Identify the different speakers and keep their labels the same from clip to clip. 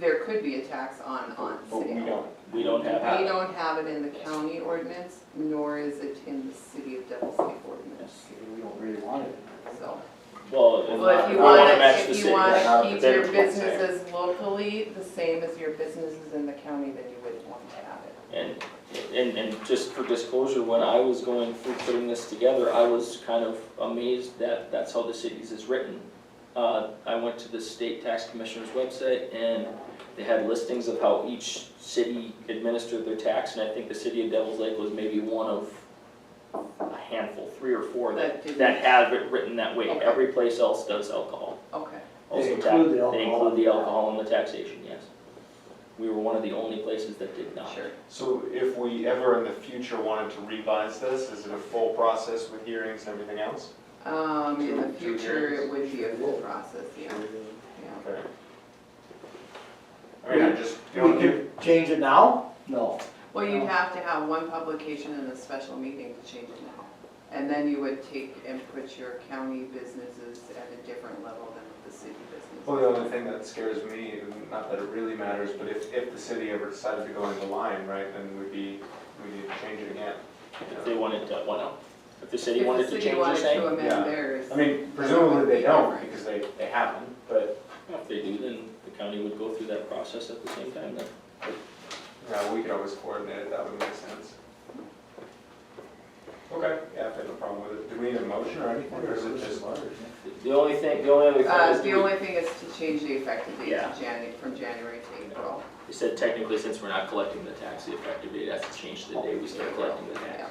Speaker 1: there could be a tax on, on
Speaker 2: But
Speaker 1: city.
Speaker 2: we don't.
Speaker 3: We don't have
Speaker 1: We
Speaker 3: that.
Speaker 1: don't have it in the county ordinance, nor is it in the city of Devils Lake ordinance,
Speaker 3: Yes.
Speaker 2: We don't really want it.
Speaker 1: so.
Speaker 3: Well, if
Speaker 1: Well, if
Speaker 3: we
Speaker 1: you
Speaker 3: wanna
Speaker 1: wanna,
Speaker 3: match the
Speaker 1: if you
Speaker 3: city.
Speaker 1: wanna
Speaker 2: Yeah.
Speaker 1: keep
Speaker 2: Yeah.
Speaker 1: your
Speaker 2: Yeah.
Speaker 1: businesses locally the same as your businesses in the county, then you wouldn't want to have it.
Speaker 3: And, and, and just for disclosure, when I was going through putting this together, I was kind of amazed that that's how the cities is written. Uh, I went to the state tax commissioner's website and they had listings of how each city administered their tax, and I think the city of Devils Lake was maybe one of a handful, three or four that,
Speaker 1: That didn't-
Speaker 3: that have it written that way.
Speaker 1: Okay.
Speaker 3: Every place else does alcohol.
Speaker 1: Okay,
Speaker 3: Also
Speaker 4: They
Speaker 3: tax-
Speaker 4: include the
Speaker 3: They
Speaker 4: alcohol.
Speaker 3: include the alcohol in the taxation, yes. We were one of the only places that did not.
Speaker 1: sure.
Speaker 2: So if we ever in the future wanted to revise this, is it a full process with hearings and everything else?
Speaker 1: Um, in the
Speaker 2: Two- two
Speaker 1: future, it
Speaker 2: hearings.
Speaker 1: would be a full process, yeah, yeah.
Speaker 2: Okay. I mean, I just, you
Speaker 4: We
Speaker 2: know, if-
Speaker 4: could change it now? No.
Speaker 1: Well, you'd have to have one publication and a special meeting to change it now. And then you would take and put your county businesses at a different level than the city
Speaker 2: Well, the
Speaker 1: businesses.
Speaker 2: only thing that scares me, and not that it really matters, but if, if the city ever decided to go into line, right, then we'd be, we'd need to change it again.
Speaker 3: If they wanted to, why not? If the city
Speaker 1: If
Speaker 3: wanted to change
Speaker 1: the
Speaker 3: their
Speaker 1: city wanted to
Speaker 3: thing,
Speaker 2: Yeah.
Speaker 1: amend theirs.
Speaker 2: I mean, presumably they don't, because they, they haven't, but,
Speaker 3: if they do, then the county would go through that process at the same time then.
Speaker 2: you know, we could always coordinate it, that would make sense. Okay, yeah, if they have a problem with it, do we need a motion or anything, or is it just?
Speaker 3: The- The only thing, the only other thing
Speaker 1: Uh,
Speaker 3: is,
Speaker 1: the
Speaker 3: we-
Speaker 1: only thing is to change the effective date
Speaker 3: Yeah.
Speaker 1: to January, from January to April.
Speaker 3: we said technically since we're not collecting the tax, the effective date has to change to the day we start collecting the
Speaker 1: Yeah,
Speaker 3: tax.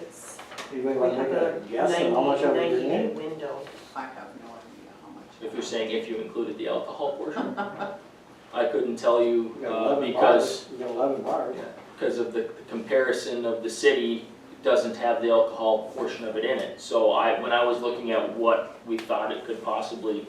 Speaker 5: It's,
Speaker 4: Anybody
Speaker 5: we
Speaker 4: want to
Speaker 5: have
Speaker 4: take a
Speaker 5: a
Speaker 4: guess on how much
Speaker 5: 90
Speaker 4: I would
Speaker 5: 90 day
Speaker 4: gain?
Speaker 5: window.
Speaker 1: I have no idea how much.
Speaker 3: If you're saying if you included the alcohol portion, I couldn't tell you,
Speaker 4: We got
Speaker 3: uh,
Speaker 4: 11
Speaker 3: because,
Speaker 4: bars. We got eleven bars.
Speaker 3: because of the the comparison of the city doesn't have the alcohol portion of it in it. So I, when I was looking at what we thought it could possibly,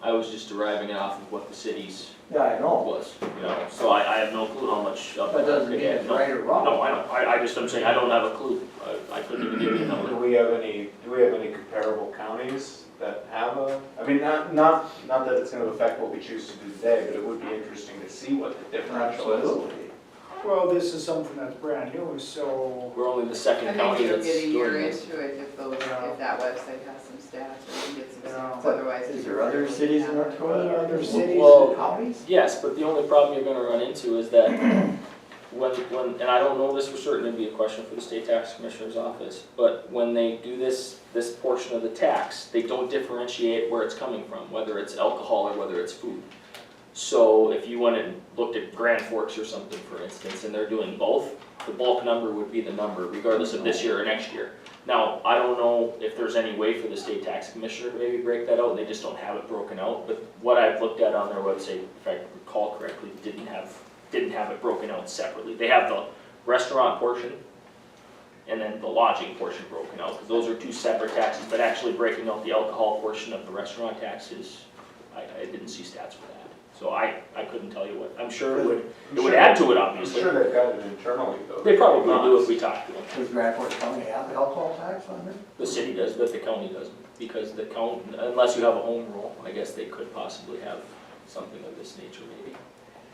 Speaker 3: I was just deriving it off of what the city's
Speaker 4: Yeah, I know.
Speaker 3: was, you know, so I, I have no clue how much of
Speaker 4: That doesn't mean
Speaker 3: Yeah,
Speaker 4: it's
Speaker 3: no.
Speaker 4: right or wrong.
Speaker 3: No, I don't, I, I just, I'm saying, I don't have a clue, I, I couldn't even give you a
Speaker 2: Do
Speaker 3: number.
Speaker 2: we have any, do we have any comparable counties that have a, I mean, not, not, not that it's gonna affect what we choose to do today, but it would be interesting to see what the differential is.
Speaker 4: Absolutely.
Speaker 6: Well, this is something that's brand new, so
Speaker 3: We're only the
Speaker 1: I
Speaker 3: second
Speaker 1: think
Speaker 3: county
Speaker 1: you'll
Speaker 3: that's
Speaker 1: get a
Speaker 3: doing
Speaker 1: year
Speaker 3: this.
Speaker 1: into it if those,
Speaker 6: Yeah.
Speaker 1: if that website has some stats, or you get some
Speaker 6: Yeah.
Speaker 1: stats, otherwise.
Speaker 4: Is
Speaker 1: it's
Speaker 4: there other
Speaker 1: really
Speaker 4: cities in North
Speaker 1: happening.
Speaker 4: Dakota, that are other cities
Speaker 3: Well-
Speaker 4: and counties?
Speaker 3: Yes, but the only problem you're gonna run into is that when, when, and I don't know this for certain, it'd be a question for the state tax commissioner's office, but when they do this, this portion of the tax, they don't differentiate where it's coming from, whether it's alcohol or whether it's food. So if you went and looked at Grand Forks or something, for instance, and they're doing both, the bulk number would be the number regardless of this year or next year. Now, I don't know if there's any way for the state tax commissioner to maybe break that out, they just don't have it broken out, but what I've looked at on their website, if I recall correctly, didn't have, didn't have it broken out separately. They have the restaurant portion and then the lodging portion broken out, because those are two separate taxes, but actually breaking out the alcohol portion of the restaurant taxes, I, I didn't see stats for that. So I, I couldn't tell you what, I'm sure it would,
Speaker 2: I'm
Speaker 3: it would
Speaker 2: sure-
Speaker 3: add to it,
Speaker 2: I'm
Speaker 3: obviously.
Speaker 2: sure they've got it internally, though.
Speaker 3: They probably do if we talk to them.
Speaker 4: Does Grand Forks County have alcohol tax on it?
Speaker 3: The city does, but the county doesn't, because the county, unless you have a home rule, I guess they could possibly have something of this nature maybe.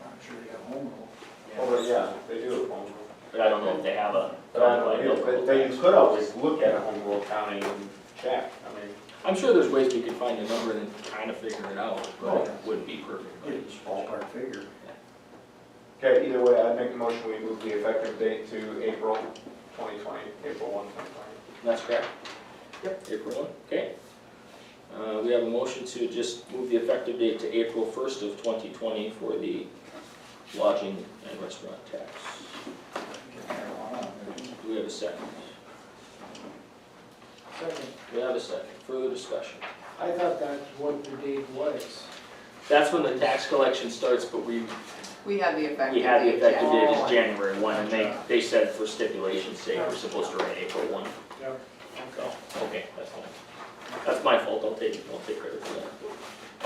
Speaker 4: I'm sure they have home rule.
Speaker 2: Oh, but yeah, they do have home rule.
Speaker 3: But I don't know if they have a.
Speaker 2: But I don't know, but they could always look at a home rule county and check, I mean.
Speaker 3: I'm sure there's ways we could find a number and then kind of figure it out, but it wouldn't be perfect. by any
Speaker 4: It's
Speaker 3: stretch.
Speaker 4: ballpark figure.
Speaker 2: Okay, either way, I'd make a motion, we move the effective date to April twenty twenty, April one, twenty twenty.
Speaker 3: That's correct? Yep. April one, okay. Uh, we have a motion to just move the effective date to April first of twenty twenty for the lodging and restaurant tax.
Speaker 4: Get marijuana on there.
Speaker 3: Do we have a second?
Speaker 6: second,
Speaker 3: We have a second, further discussion.
Speaker 6: I thought that's what the date was.
Speaker 3: That's when the tax collection starts, but we,
Speaker 1: We have the effective date.
Speaker 3: we had the effective
Speaker 1: January.
Speaker 3: date as January one, and they, they said for stipulation's sake, we're supposed to run April one,
Speaker 6: Yep.
Speaker 3: so, okay, that's fine. That's my fault, I'll take, I'll take credit for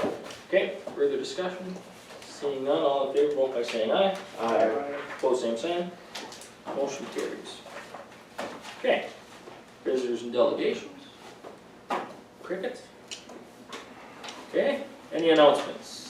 Speaker 3: that. Okay, further discussion? Seeing none, all in favor, vote by saying aye. Pose same sign. Motion carries. Okay, visitors and delegations. Crickets? Okay, any announcements?